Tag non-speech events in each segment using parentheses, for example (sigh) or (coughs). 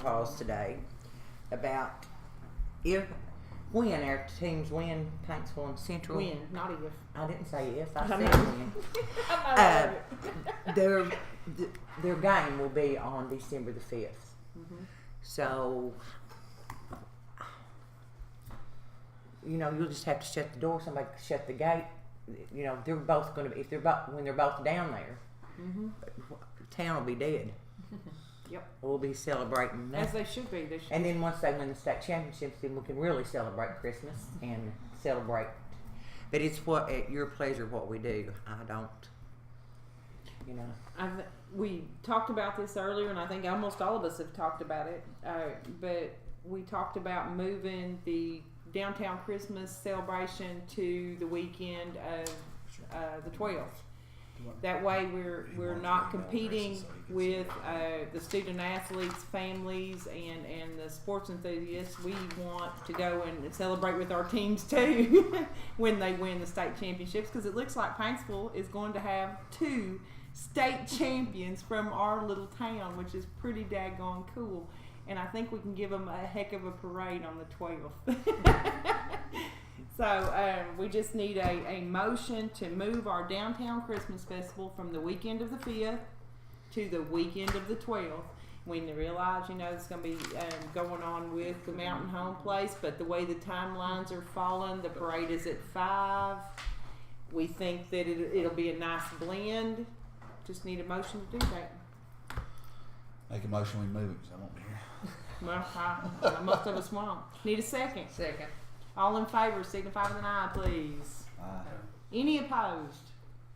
calls today about if when our teams win Paintsville and Central. When, not if. I didn't say if I I said know. when. I'm Uh, not their th- their game will be on December the 5th Mm-hmm. So you know you'll just have to shut the door. Somebody can shut the gate. You know they're both going to be if they're both when they're both down there. mm-hmm. Town will be dead. (laughs) Yep. We'll be celebrating As that. they should be. They should. And then once they win the state championships, then we can really celebrate Christmas and celebrate. But it's what at your pleasure what we do. I don't. You know. I've, we talked about this earlier, and I think almost all of us have talked about it. Uh, but we talked about moving the downtown Christmas celebration to the weekend of uh, the 12th. That way, we're we're not competing with uh, the student athletes, families, and and the sports enthusiasts. We want to go and celebrate with our teams too (laughs) when they win the state championships because it looks like Paintsville is going to have two state (laughs) champions from our little town, which is pretty daggone cool. And I think we can give them a heck of a parade on the 12th. (laughs) so um, we just need a, a motion to move our downtown Christmas festival from the weekend of the 5th to the weekend of the 12th. When they realize, you know, it's going to be um, going on with the Mountain Home Place, but the way the timelines are falling, the parade is at 5. We think that it, it'll be a nice blend. Just need a motion to do that. Make a motion, we move it, 'cause I won't be here. Well, I, I must have a swamp. Need a second. Second. All in favor, signify with an eye, please. Aye. Any opposed?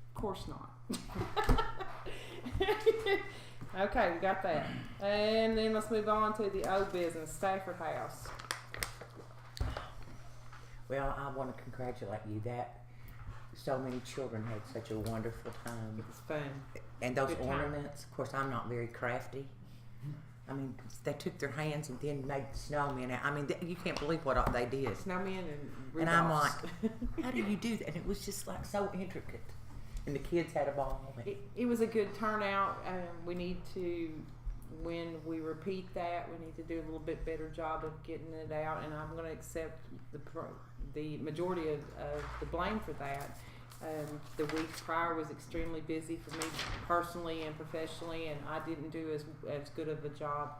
Of course not. (laughs) okay, we got that. And then let's move on to the old business, Stafford House. Well, I want to congratulate you that so many children had such a wonderful time. It's fun. And those Good time. ornaments, of course, I'm not very crafty. I mean, they took their hands and then made snowmen. out. I mean, th- you can't believe what all they did. Snowmen and And I'm Rudolphs. How do you do that? And it was just like so intricate. And the kids had a ball. it, it was a good turnout. Um, we need to, when we repeat that, we need to do a little bit better job of getting it out. And I'm going to accept the pro, the majority of, of the blame for that. Um, the week prior was extremely busy for me personally and professionally, and I didn't do as as good of a job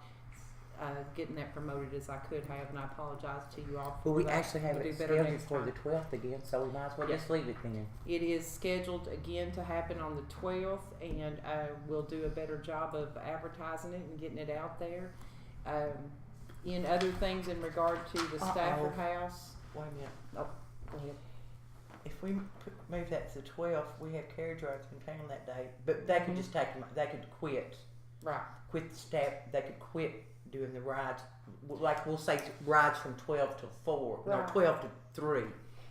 uh, getting that promoted as I could have. And I apologize to you all. For Well, we that. actually have We'll it do better scheduled next for time. the 12th again, so we might as well Yeah. just leave it then. It is scheduled again to happen on the 12th, and uh, we'll do a better job of advertising it and getting it out there. Um, in other things in regard to the Stafford House, Wait a minute. Oh, go ahead. If we p- move that to the 12th, we have carriage rides in town that day. But they Mhm. could just take them. They could quit. right, Quit the staff. They could quit doing the rides. W- Like we'll say t- rides from 12 to 4. Right. No, 12 to 3.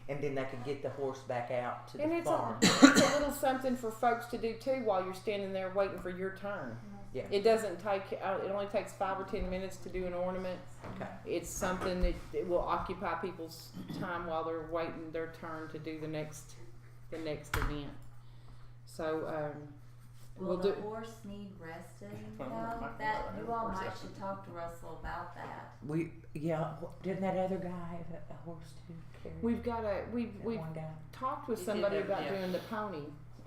And then they could get the horse back out to And the it's a- farm. (coughs) it's a little something for folks to do too while you're standing there waiting for your turn. Mm-hmm. Yeah. It doesn't take. Uh, it only takes five or ten minutes to do an ornament. Okay. It's something that, that will occupy people's time while they're waiting their turn to do the next, the next event. So um, we'll Will the do. horse need resting (laughs) I wonder if I though? can That, go you ahead all and might horse should that. talk to Russell about that. We, yeah, wh- didn't that other guy have a, a horse to carry? We've got a. We've That we've one guy. talked with You did somebody that, about yeah. doing the pony.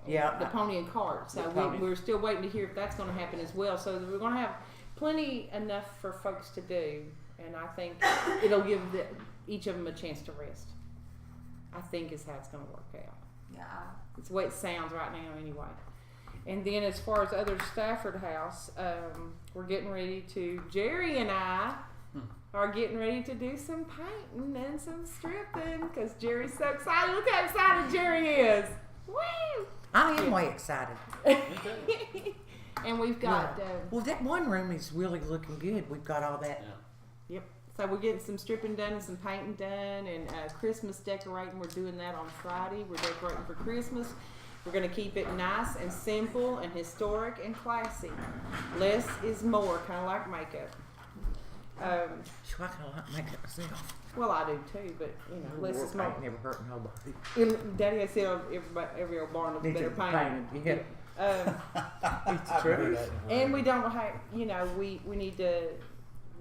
Yeah, The I- pony and cart. So The we, pony. we're still waiting to hear if that's going to happen as well. So we're going to have plenty enough for folks to do, and I think it'll give the, each of them a chance to rest. I think is how it's going to work out. Yeah, It's the way it sounds right now, anyway. And then, as far as other Stafford House, um, we're getting ready to. Jerry and I Hmm. are getting ready to do some painting and some stripping because Jerry's so excited. Look how excited Jerry is! Woo! (laughs) I am way excited. and we've got. Uh, Well, that one room is really looking good. We've got all that. So we're getting some stripping done and some painting done and uh, Christmas decorating. We're doing that on Friday. We're decorating for Christmas. We're going to keep it nice and simple and historic and classy. Less is more, kind of like makeup. Um, Phew, I kind of like making it myself. well, I do too, but you know, less is Paint more. never hurt nobody. And Daddy has said everybody, every old barn is Needs better to be painted. painted, Um, (laughs) It's true. and we don't have, you know, we we need to